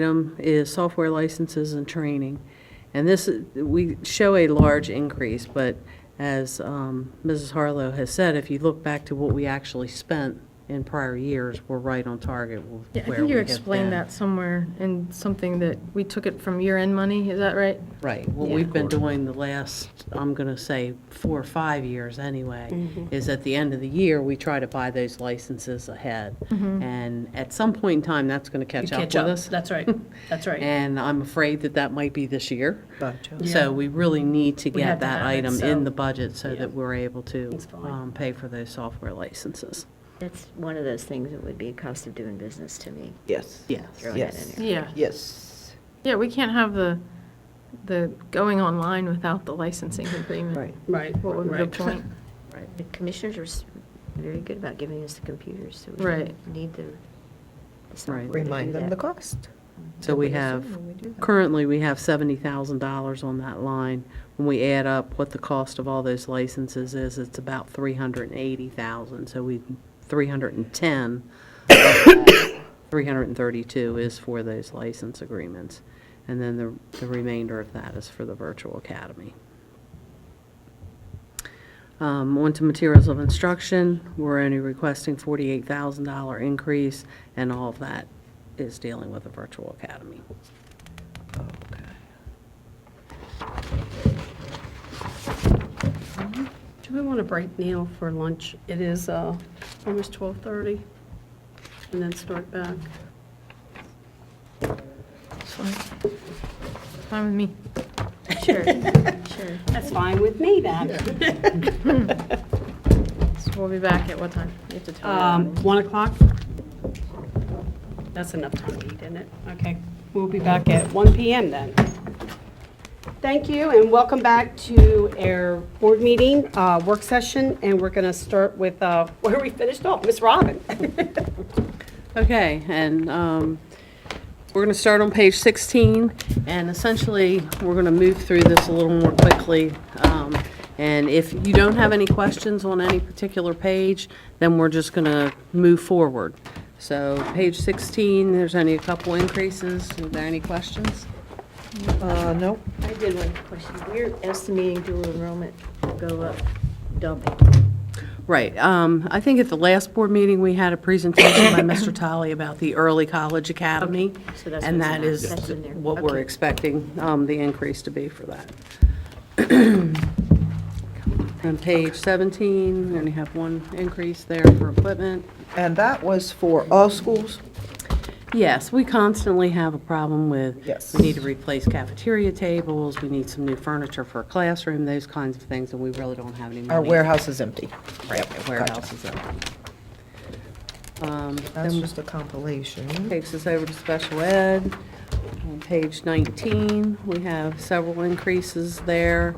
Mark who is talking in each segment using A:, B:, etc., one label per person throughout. A: item is software licenses and training. And this, is- we show a large increase, but as um, Mrs. Harlow has said, if you look back to what we actually spent in prior years, we're right on target with
B: Yeah, I
A: where
B: think
A: we
B: you
A: have been.
B: explained that somewhere in something that we took it from year-end money, is that right?
A: Right, what
B: Yeah.
A: we've been doing the last, I'm going to say, four or five years anyway, is at the end of the year, we try to buy those licenses ahead.
B: Mm-hmm.
A: And at some point in time, that's going to catch up with us.
C: That's right, that's right.
A: And I'm afraid that that might be this year. So we really need to
C: We have
A: get
C: to
A: that
C: have it,
A: item
C: so-
A: in the budget so
C: Yeah.
A: that we're able to
C: It's fine.
A: um, pay for those software licenses.
D: That's one of those things that would be a cost of doing business to me.
E: Yes.
A: Yes.
D: Throw that in
E: Yes.
D: there.
B: Yeah,
E: Yes.
B: yeah, we can't have the, the going online without the licensing agreement.
E: Right.
C: Right,
B: What would be the
C: right.
B: point?
A: Right.
D: The commissioners are s- very good about giving us the computers, so we
B: Right.
D: don't need the the software to do
E: Remind them
D: that.
E: the cost.
A: So we
E: Nobody
A: have,
E: assumed when we do that.
A: currently, we have $70,000 on that line. When we add up what the cost of all those licenses is, it's about 380,000. So we, 310, of that 332 is for those license agreements. And then the the remainder of that is for the virtual academy. Um, On to materials of instruction, we're only requesting $48,000 increase, and all of that is dealing with the virtual academy.
C: Do we want to break now for lunch? It is uh, almost 12:30, and then start back.
B: Fine with me.
D: Sure.
C: That's fine with me, then.
B: So we'll be back at what time? You have to tell me.
C: Um, 1 o'clock? That's enough time to eat, isn't it? Okay, we'll be back at 1 PM then. Thank you, and welcome back to our board meeting, uh, work session, and we're going to start with uh, where we finished off, Ms. Robin.
A: Okay, and um, we're going to start on page 16, and essentially, we're going to move through this a little more quickly. Um, And if you don't have any questions on any particular page, then we're just going to move forward. So page 16, there's only a couple increases. Are there any questions?
E: Uh, no.
D: I did one question. We're estimating dual enrollment to go up double.
A: Right. um, I think at the last board meeting, we had a presentation by Mr. Tully about the Early College Academy.
D: So that's
A: And
D: what's
A: that
D: in our
A: is
D: section there.
A: what we're
D: Okay.
A: expecting um, the increase to be for that. On page 17, we only have one increase there for equipment.
E: And that was for all schools?
A: Yes, we constantly have a problem with.
E: Yes.
A: We need to replace cafeteria tables, we need some new furniture for a classroom, those kinds of things, and we really don't have any money.
E: Our warehouse is empty. Yep,
A: Right,
E: gotcha.
A: warehouse is empty. Um,
E: That's
A: then-
E: just a compilation.
A: Takes us over to special ed. On page 19, we have several increases there.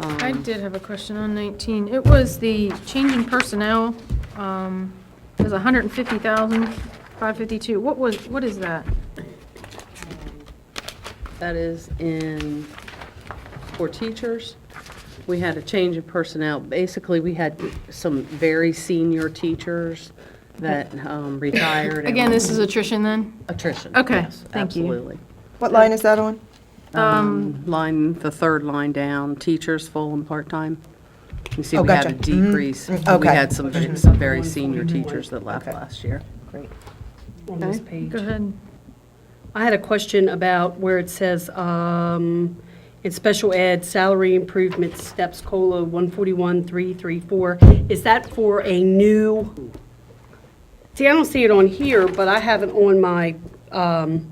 A: Um,
B: I did have a question on 19. It was the change in personnel, um, it was 150,552. What was, what is that?
A: That is in, for teachers, we had a change in personnel. Basically, we had some very senior teachers that um, retired. and-
B: Again, this is attrition then?
A: Attrition.
B: Okay,
A: yes,
B: thank you.
A: Absolutely.
E: What line is that on?
A: Um, Line, the third line down, teachers full and part-time. You see,
E: Oh,
A: we had a
E: gotcha. Mm,
A: decrease.
E: mm,
A: We
E: okay.
A: had some, ve- some very senior teachers that left
E: Okay.
A: last year.
E: Great.
C: On this page.
B: Go ahead.
C: I had a question about where it says, um, in special ed, salary improvement steps, COLA 141,334. Is that for a new? See, I don't see it on here, but I have it on my, um,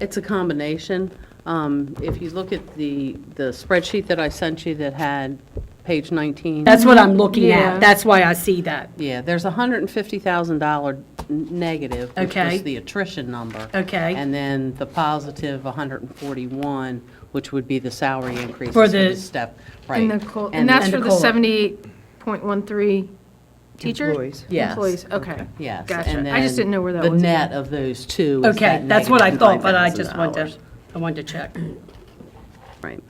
A: It's a combination. Um, if you look at the, the spreadsheet that I sent you that had page nineteen.
C: that's what I'm looking
B: Yeah.
C: at. That's why I see that.
A: Yeah, there's a hundred and fifty thousand dollar negative, which
C: Okay.
A: was the attrition number.
C: Okay.
A: And then the positive hundred and forty-one, which would be the salary increase
C: For
A: for
C: the-
A: the step, right.
B: And the col- and that's
C: and
B: for
C: the
B: the
C: COLA.
B: 78.13 teacher?
E: Employees.
A: Yes.
B: Employees, okay.
A: Yes. and
B: Gotcha. I just
A: then
B: didn't know where that was.
A: The net of those two is
C: Okay,
A: that
C: that's what I
A: negative
C: thought, but I just wanted
A: $9,000.
C: to, I wanted to check.
A: Right.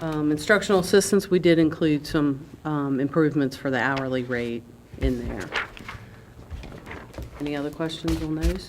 A: Um, Instructional assistance, we did include some um, improvements for the hourly rate in there. Any other questions on those?